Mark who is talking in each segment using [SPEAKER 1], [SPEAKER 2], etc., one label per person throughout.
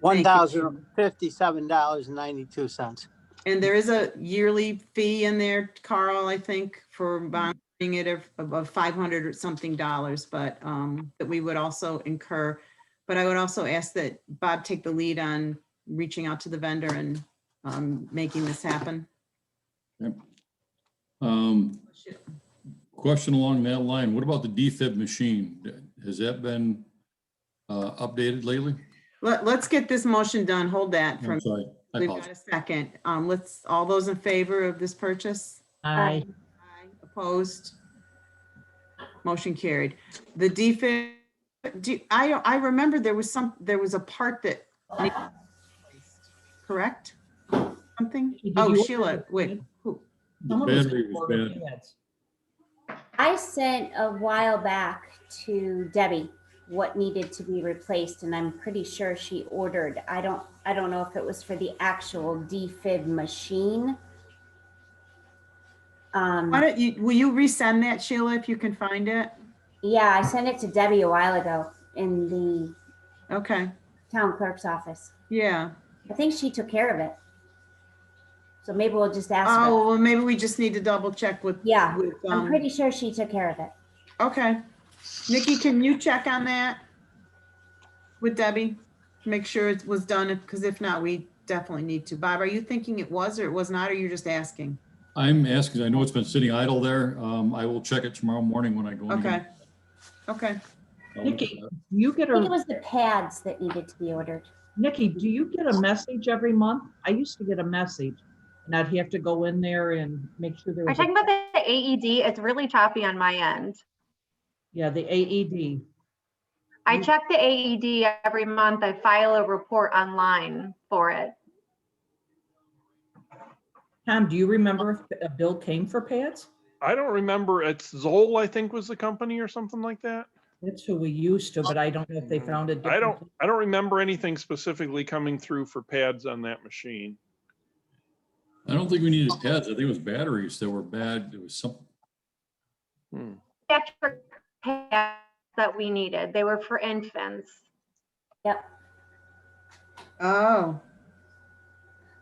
[SPEAKER 1] One thousand fifty-seven dollars and ninety-two cents.
[SPEAKER 2] And there is a yearly fee in there, Carl, I think, for
[SPEAKER 3] Mm-hmm.
[SPEAKER 2] bonding it of, of five hundred or something dollars, but, um, that we would also incur. But I would also ask that Bob take the lead on reaching out to the vendor and, um, making this happen.
[SPEAKER 3] Um, Question along that line, what about the DFib machine? Has that been uh, updated lately?
[SPEAKER 2] Let, let's get this motion done. Hold that for,
[SPEAKER 3] I'm sorry, I
[SPEAKER 2] we've got
[SPEAKER 3] apologize.
[SPEAKER 2] a second. Um, let's, all those in favor of this purchase?
[SPEAKER 4] Aye.
[SPEAKER 2] Aye. Opposed? Motion carried. The defib, do, I, I remember there was some, there was a part that, needed- correct? Something?
[SPEAKER 4] Did
[SPEAKER 2] Oh,
[SPEAKER 4] you-
[SPEAKER 2] Sheila, wait, who,
[SPEAKER 3] The
[SPEAKER 4] Someone was
[SPEAKER 3] battery was
[SPEAKER 4] recording
[SPEAKER 3] bad.
[SPEAKER 4] ads.
[SPEAKER 5] I sent a while back to Debbie what needed to be replaced, and I'm pretty sure she ordered. I don't, I don't know if it was for the actual defib machine.
[SPEAKER 2] why
[SPEAKER 5] Um,
[SPEAKER 2] don't you, will you resend that Sheila if you can find it?
[SPEAKER 5] yeah, I sent it to Debbie a while ago in the
[SPEAKER 2] Okay,
[SPEAKER 5] town clerk's office.
[SPEAKER 2] yeah.
[SPEAKER 5] I think she took care of it. So maybe we'll just ask her.
[SPEAKER 2] Oh, well, maybe we just need to double check with.
[SPEAKER 5] Yeah,
[SPEAKER 2] with,
[SPEAKER 5] I'm
[SPEAKER 2] um,
[SPEAKER 5] pretty sure she took care of it.
[SPEAKER 2] Okay. Nikki, can you check on that? With Debbie? Make sure it was done, because if not, we definitely need to. Bob, are you thinking it was or it was not, or you're just asking?
[SPEAKER 3] I'm asking, I know it's been sitting idle there. Um, I will check it tomorrow morning when I go. in
[SPEAKER 2] Okay.
[SPEAKER 3] again.
[SPEAKER 2] Okay.
[SPEAKER 3] I'll look at
[SPEAKER 4] Nikki,
[SPEAKER 3] that.
[SPEAKER 4] do you get
[SPEAKER 5] I think it
[SPEAKER 4] a,
[SPEAKER 5] was the pads that needed to be ordered.
[SPEAKER 4] Nikki, do you get a message every month? I used to get a message and I'd have to go in there and make sure there
[SPEAKER 6] Are you
[SPEAKER 4] was,
[SPEAKER 6] talking
[SPEAKER 4] a-
[SPEAKER 6] about the AED? It's really choppy on my end.
[SPEAKER 4] yeah, the E AED.
[SPEAKER 6] I
[SPEAKER 4] Mm.
[SPEAKER 6] check the AED every month. I file a report online for it.
[SPEAKER 4] Tom, do you remember if a bill came for pads?
[SPEAKER 7] I don't remember. It's Zoll, I think was the company or something like that.
[SPEAKER 4] That's who we used to, but I don't know if they found it.
[SPEAKER 7] I don't, I don't remember anything specifically coming through for pads on that machine.
[SPEAKER 3] I don't think we needed pads. I think it was batteries that were bad. It was some,
[SPEAKER 7] Hmm.
[SPEAKER 6] Pediatric pads That we needed. They were for infants.
[SPEAKER 2] Oh,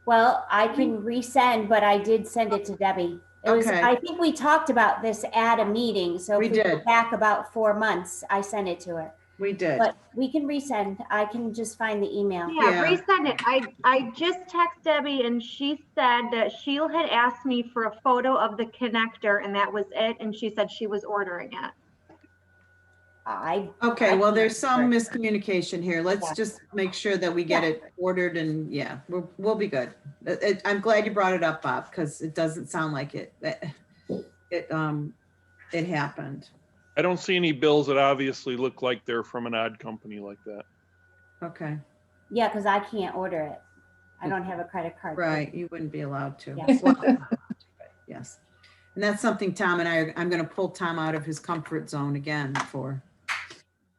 [SPEAKER 5] Well, I
[SPEAKER 2] Mm-hmm.
[SPEAKER 5] can resend, but I did send it to Debbie. It was,
[SPEAKER 2] Okay.
[SPEAKER 5] I think we talked about this at a meeting, so
[SPEAKER 2] We
[SPEAKER 5] if we go
[SPEAKER 2] did.
[SPEAKER 5] back about four months, I sent it to her.
[SPEAKER 2] we did.
[SPEAKER 5] But we can resend. I can just find the email.
[SPEAKER 2] Yeah.
[SPEAKER 6] Yeah, resend it. I, I just texted Debbie and she said that Sheila had asked me for a photo of the connector and that was it. And she said she was ordering it.
[SPEAKER 5] I,
[SPEAKER 2] Okay, well, there's some miscommunication here. Let's just make sure that we get it ordered and, yeah, we'll, we'll be good. It- it- I'm glad you brought it up, Bob, because it doesn't sound like it, that- it, um, it happened.
[SPEAKER 7] I don't see any bills that obviously look like they're from an odd company like that.
[SPEAKER 2] Okay,
[SPEAKER 5] yeah, because I can't order it. I don't have a credit card.
[SPEAKER 2] Mm-hmm. right, you wouldn't be allowed to.
[SPEAKER 5] Yeah.
[SPEAKER 2] Well, Yes. And that's something Tom and I, are I'm going to pull Tom out of his comfort zone again for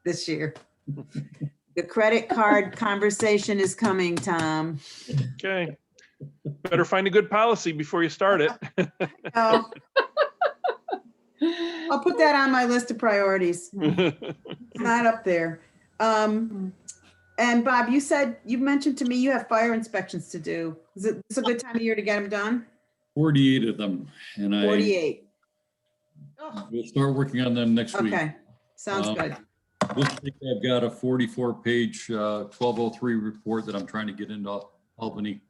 [SPEAKER 2] this year. The credit card conversation is coming, Tom.
[SPEAKER 7] Okay. Better find a good policy before you start it.
[SPEAKER 2] Oh. I'll put that on my list of priorities. It's not up there. Um, and Bob, you said, you mentioned to me you have fire inspections to do. Is it, this a good time of year to get them done?
[SPEAKER 3] forty-eight of them and I
[SPEAKER 2] 48.
[SPEAKER 3] will start working on them next week.
[SPEAKER 2] Okay, sounds
[SPEAKER 3] Um,
[SPEAKER 2] good.
[SPEAKER 3] Looks like I've got a forty-four page, uh, twelve oh three report that I'm trying to get into Albany.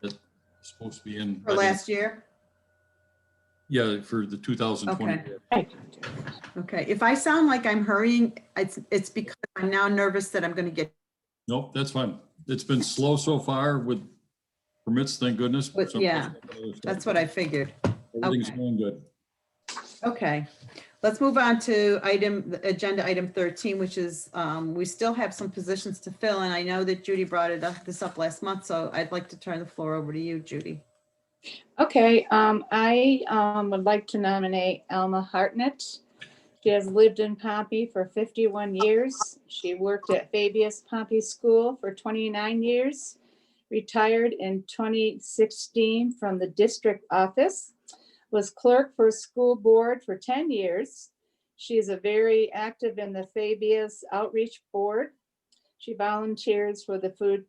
[SPEAKER 3] That's supposed to be in.
[SPEAKER 2] For last year?
[SPEAKER 3] Yeah, for the two thousand twenty.
[SPEAKER 2] Okay. Okay, if I sound like I'm hurrying, it's, it's because I'm now nervous that I'm gonna get,
[SPEAKER 3] Nope, that's fine. It's been slow so far with permits, thank goodness.
[SPEAKER 2] But,
[SPEAKER 3] Some-
[SPEAKER 2] yeah, that's what I figured.
[SPEAKER 3] Everything's
[SPEAKER 2] okay.
[SPEAKER 3] going good.
[SPEAKER 2] Okay, let's move on to item, the agenda item 13, which is, um, we still have some positions to fill, and I know that Judy brought it up, this up last month, so I'd like to turn the floor over to you, Judy.
[SPEAKER 8] Okay, um, I, um, would like to nominate Alma Hartnett. She has lived in Pompey for fifty-one years. She worked at Fabius Pompey School for twenty-nine years. Retired in twenty sixteen from the district office. Was clerk for school board for ten years. She is a very active in the Fabius Outreach Board. She volunteers for the Food